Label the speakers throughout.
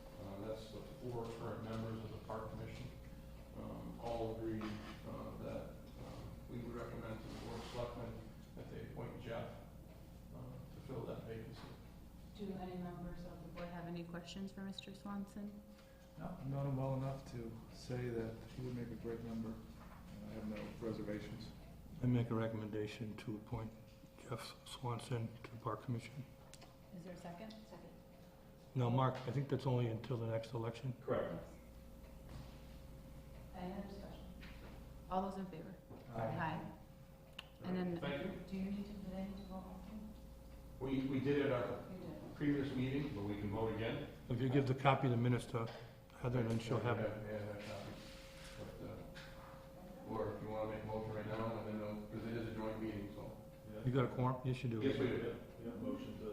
Speaker 1: Uh, Um, uh, uh,
Speaker 2: any questions for Mr. Swanson?
Speaker 3: No, I've known him well enough to say that he would make a great member, and I have no reservations.
Speaker 4: I make a recommendation to appoint Jeff Swanson to the Park Commission.
Speaker 2: Is there a second? Second.
Speaker 4: Now, Mark, I think that's only until the next election.
Speaker 1: Correct.
Speaker 2: Any other discussion? All those in favor?
Speaker 3: Aye.
Speaker 2: And then-
Speaker 1: Thank you.
Speaker 2: Do you need to, do they need to vote on
Speaker 1: We, we did it at our
Speaker 2: You did.
Speaker 1: previous meeting, but we can vote again.
Speaker 4: If you give the copy of the minutes to Heather, then she'll have
Speaker 1: Yeah,
Speaker 4: it.
Speaker 1: yeah, that copy. But, uh, Or if you wanna make a motion right now, and then, because it is a joint meeting, so.
Speaker 4: You got a quorum? Yes, you do.
Speaker 1: Yes, we do.
Speaker 3: motion to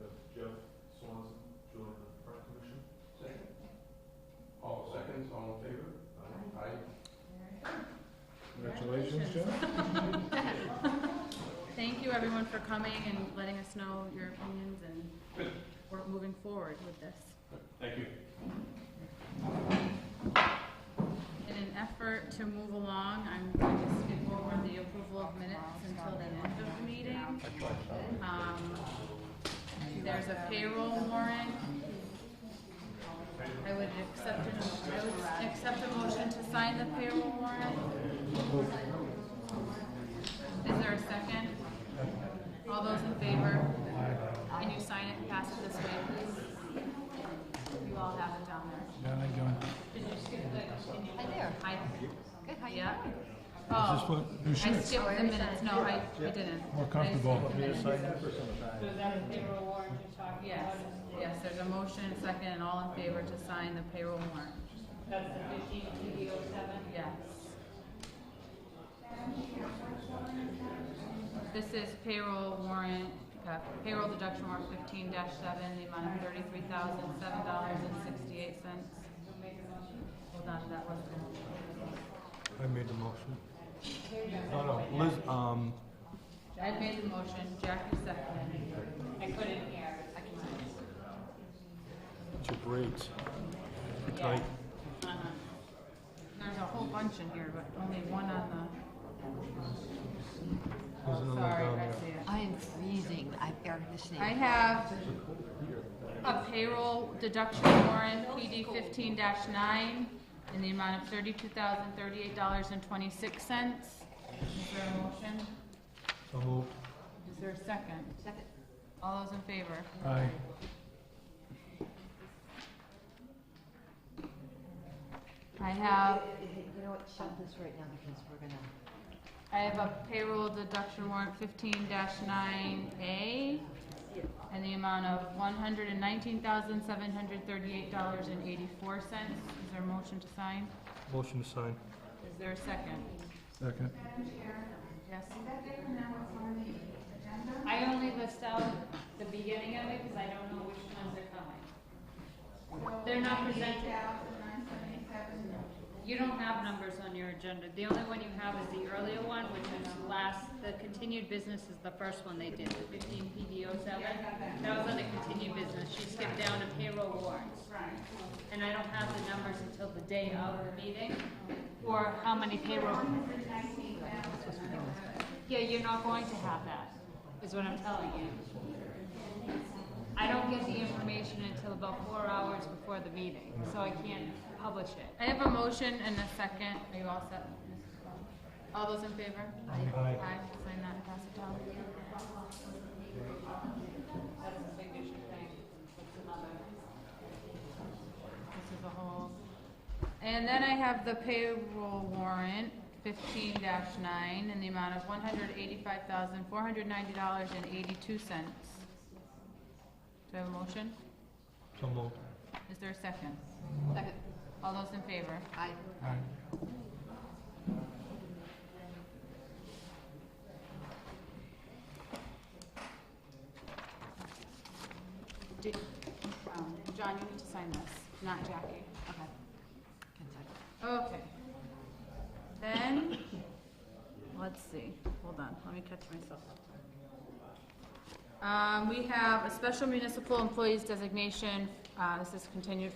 Speaker 3: have Jeff Swanson join the park commission?
Speaker 1: Second. All seconds, all in favor? Aye.
Speaker 3: Congratulations, Jeff.
Speaker 2: Thank you, everyone, for coming and letting us know your opinions, and we're moving forward with this.
Speaker 1: Thank you.
Speaker 2: In an effort to move along, I'm going to skip over the approval of minutes until the end of the meeting. Um, There's a payroll warrant. I would accept, an- I would accept a motion to sign the payroll warrant. Is there a second? All those in favor? Can you sign it and pass it this way, please? You all have it down there.
Speaker 3: Yeah, I don't.
Speaker 2: Did you skip the, can you?
Speaker 5: Hi there.
Speaker 2: Hi.
Speaker 5: Good, how you
Speaker 2: Yeah.
Speaker 5: doing?
Speaker 4: Is this
Speaker 2: Oh,
Speaker 4: what,
Speaker 3: You
Speaker 2: I
Speaker 3: should,
Speaker 2: skipped the minutes, no, I, I didn't.
Speaker 3: more comfortable.
Speaker 2: I skipped the minutes.
Speaker 6: So is that a payroll warrant you're talking
Speaker 2: Yes,
Speaker 6: about?
Speaker 2: yes, there's a motion, second, and all in favor to sign the payroll warrant,
Speaker 6: That's the fifteen TV oh seven?
Speaker 2: yes. This is payroll warrant, uh, payroll deduction warrant fifteen seven, the amount of thirty-three thousand, seven dollars and sixty-eight cents. Hold on, that was the
Speaker 4: I made the motion. No, no, Liz, um,
Speaker 2: I made the motion, Jackie seconded.
Speaker 6: I couldn't hear. I can.
Speaker 4: it's your braids. They're tight.
Speaker 2: Uh-huh. There's a whole bunch in here, but only one on
Speaker 3: Oh,
Speaker 4: There's
Speaker 2: the,
Speaker 4: another one
Speaker 2: sorry,
Speaker 4: down
Speaker 2: I
Speaker 4: there.
Speaker 2: see it.
Speaker 5: I am freezing. I have air conditioning.
Speaker 2: I have a payroll deduction warrant, PD fifteen nine, in the amount of thirty-two thousand, thirty-eight dollars and twenty-six cents. Is there a motion?
Speaker 4: So moved.
Speaker 2: Is there a second?
Speaker 5: Second.
Speaker 2: All those in favor?
Speaker 3: Aye.
Speaker 2: I have,
Speaker 5: You know what, shut this right now because we're gonna.
Speaker 2: I have a payroll deduction warrant fifteen nine A, in the amount of one hundred and nineteen thousand, seven hundred thirty-eight dollars and eighty-four cents. Is there a motion to sign?
Speaker 4: Motion to sign.
Speaker 2: Is there a second?
Speaker 3: Second.
Speaker 2: Yes.
Speaker 6: I only list out the beginning of it because I don't know which ones are coming. They're not presented. You don't have numbers on your agenda. The only one you have is the earlier one, which is last, the continued business is the first one they did, the fifteen PD oh seven. That was on the continued business. She skipped down to payroll warrants. And I don't have the numbers until the day of the meeting, or how many payroll. Yeah, you're not going to have that, is what I'm telling you. I don't get the information until about four hours before the meeting, so I can't publish it.
Speaker 2: I have a motion and a second. Are you all set? Mrs. Brown? All those in favor?
Speaker 4: Aye.
Speaker 2: Aye, sign that and pass it down.
Speaker 6: That's a signature thing, that's another.
Speaker 2: This is a whole. And then I have the payroll warrant fifteen nine in the amount of one hundred eighty-five thousand, four hundred ninety dollars and eighty-two cents. Do I have a motion?
Speaker 4: So moved.
Speaker 2: Is there a second?
Speaker 5: Second.
Speaker 2: All those in favor?
Speaker 5: I,
Speaker 2: Did, um, John, you need to sign this, not Jackie.
Speaker 5: okay. Can second.
Speaker 2: Okay. Then, let's see, hold on, let me catch myself. Um, we have a special municipal employees designation, uh, this is continued